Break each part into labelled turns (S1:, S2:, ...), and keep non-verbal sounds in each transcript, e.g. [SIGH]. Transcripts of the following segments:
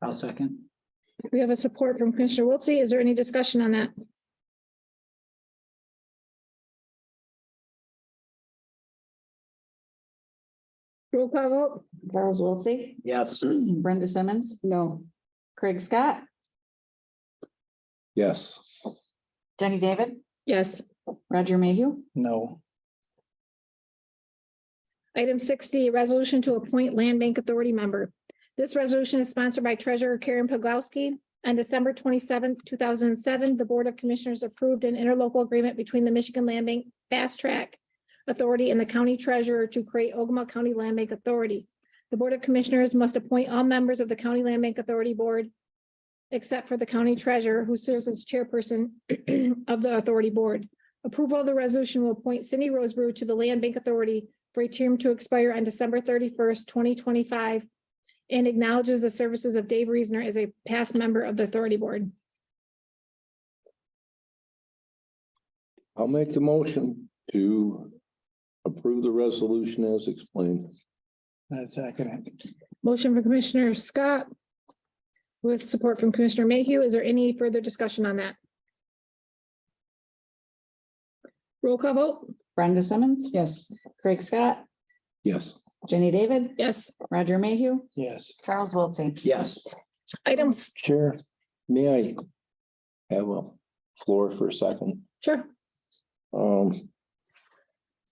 S1: I'll second.
S2: We have a support from Commissioner Wiltie. Is there any discussion on that? Roll call vote?
S3: Charles Wiltie,
S1: Yes,
S3: Brenda Simmons. No. Craig Scott,
S4: yes,
S3: Jenny David,
S2: Yes.
S3: Roger Mayhew,
S5: no,
S2: Item sixty, resolution to appoint land bank authority member. This resolution is sponsored by Treasurer Karen Pogowski. On December twenty-seventh, two thousand and seven, the Board of Commissioners approved an interlocal agreement between the Michigan Land Bank Fast Track Authority and the County Treasurer to create Ogama County Land Bank Authority. The Board of Commissioners must appoint all members of the County Land Bank Authority Board except for the County Treasurer, who serves as chairperson of the Authority Board. Approval of the resolution will appoint Cindy Rosebrew to the Land Bank Authority for a term to expire on December thirty-first, twenty twenty-five, and acknowledges the services of Dave Reesner as a past member of the Authority Board.
S4: I'll make the motion to approve the resolution as explained.
S5: that's second.
S2: Motion from Commissioner Scott with support from Commissioner Mayhew. Is there any further discussion on that? Roll call vote?
S3: Brenda Simmons.
S1: yes,
S3: Craig Scott,
S4: Yes,
S3: Jenny David,
S2: Yes.
S3: Roger Mayhew,
S5: Yes,
S3: Charles Wiltie.
S1: yes,
S2: Items,
S4: Chair, may I have a floor for a second?
S2: sure.
S4: Um,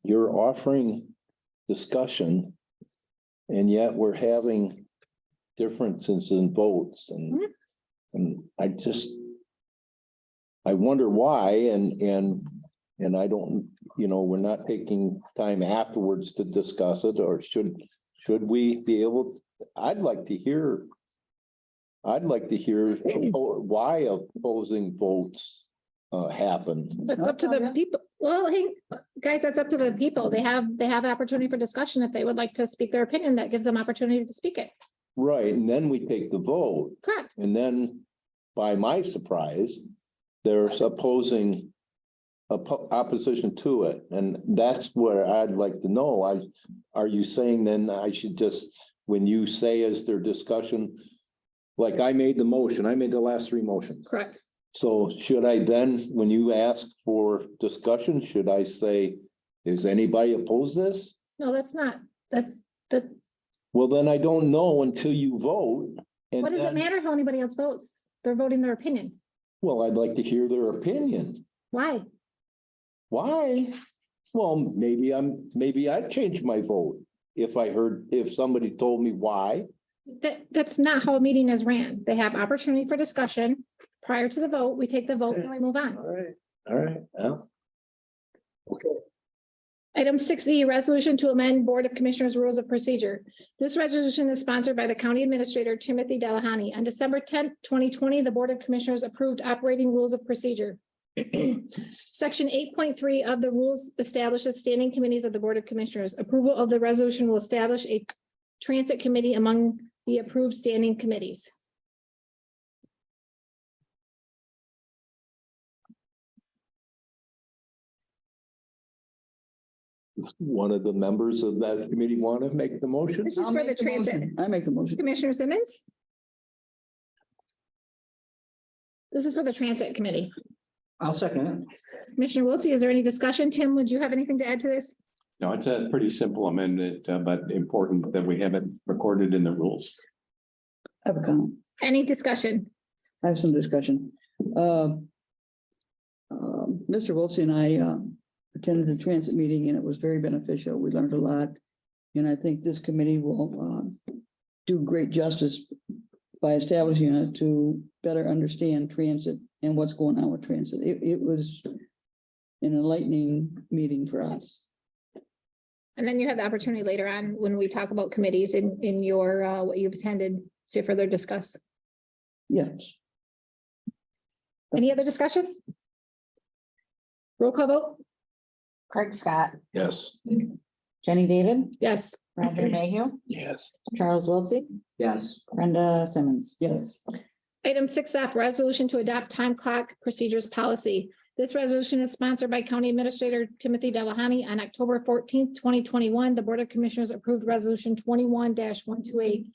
S4: you're offering discussion and yet we're having differences in votes and, and I just, I wonder why and, and, and I don't, you know, we're not taking time afterwards to discuss it or should, should we be able, I'd like to hear, I'd like to hear why opposing votes uh, happen.
S2: That's up to the people. Well, hey, guys, that's up to the people. They have, they have opportunity for discussion. If they would like to speak their opinion, that gives them opportunity to speak it.
S4: Right, and then we take the vote,
S2: Correct.
S4: and then by my surprise, there's opposing oppo- opposition to it, and that's where I'd like to know, I, are you saying then I should just, when you say is there discussion, like I made the motion, I made the last three motions.
S2: Correct.
S4: So should I then, when you ask for discussion, should I say, is anybody oppose this?
S2: No, that's not, that's, that,
S4: Well, then I don't know until you vote. and
S2: what does it
S4: then-
S2: matter how anybody else votes? They're voting their opinion.
S4: Well, I'd like to hear their opinion.
S2: Why?
S4: Why? Well, maybe I'm, maybe I'd change my vote if I heard, if somebody told me why.
S2: That, that's not how a meeting is ran. They have opportunity for discussion. Prior to the vote, we take the vote and we move on.
S4: right. All right, yeah.
S2: Item six E, resolution to amend Board of Commissioners Rules of Procedure. This resolution is sponsored by the County Administrator Timothy Delahoney. On December tenth, twenty twenty, the Board of Commissioners approved operating rules of procedure. [CLEARS THROAT] Section eight point three of the rules establishes standing committees of the Board of Commissioners. Approval of the resolution will establish a transit committee among the approved standing committees.
S4: Does One of the members of that committee want to make the motion?
S2: This is for the transit.
S3: I make the motion.
S2: Commissioner Simmons? This is for the Transit Committee.
S1: I'll second
S2: Commissioner Wiltie, is there any discussion? Tim, would you have anything to add to this?
S6: No, it's a pretty simple amendment, uh, but important that we have it recorded in the rules.
S7: I have a comment.
S2: Any discussion?
S7: I have some discussion. Um, um, Mr. Wiltie and I um, attended the transit meeting and it was very beneficial. We learned a lot. And I think this committee will um, do great justice by establishing it to better understand transit and what's going on with transit. It, it was an enlightening meeting for us.
S2: And then you have the opportunity later on when we talk about committees in, in your, uh, what you've attended to further discuss.
S7: Yes.
S2: Any other discussion? Roll call vote?
S3: Craig Scott,
S4: Yes.
S3: Jenny David,
S2: Yes.
S3: Roger Mayhew,
S5: yes,
S3: Charles Wiltie,
S1: yes,
S3: Brenda Simmons.
S7: Yes.
S2: Item six F, resolution to adopt time clock procedures policy. This resolution is sponsored by County Administrator Timothy Delahoney. On October fourteenth, twenty twenty-one, the Board of Commissioners approved Resolution twenty-one one two eight,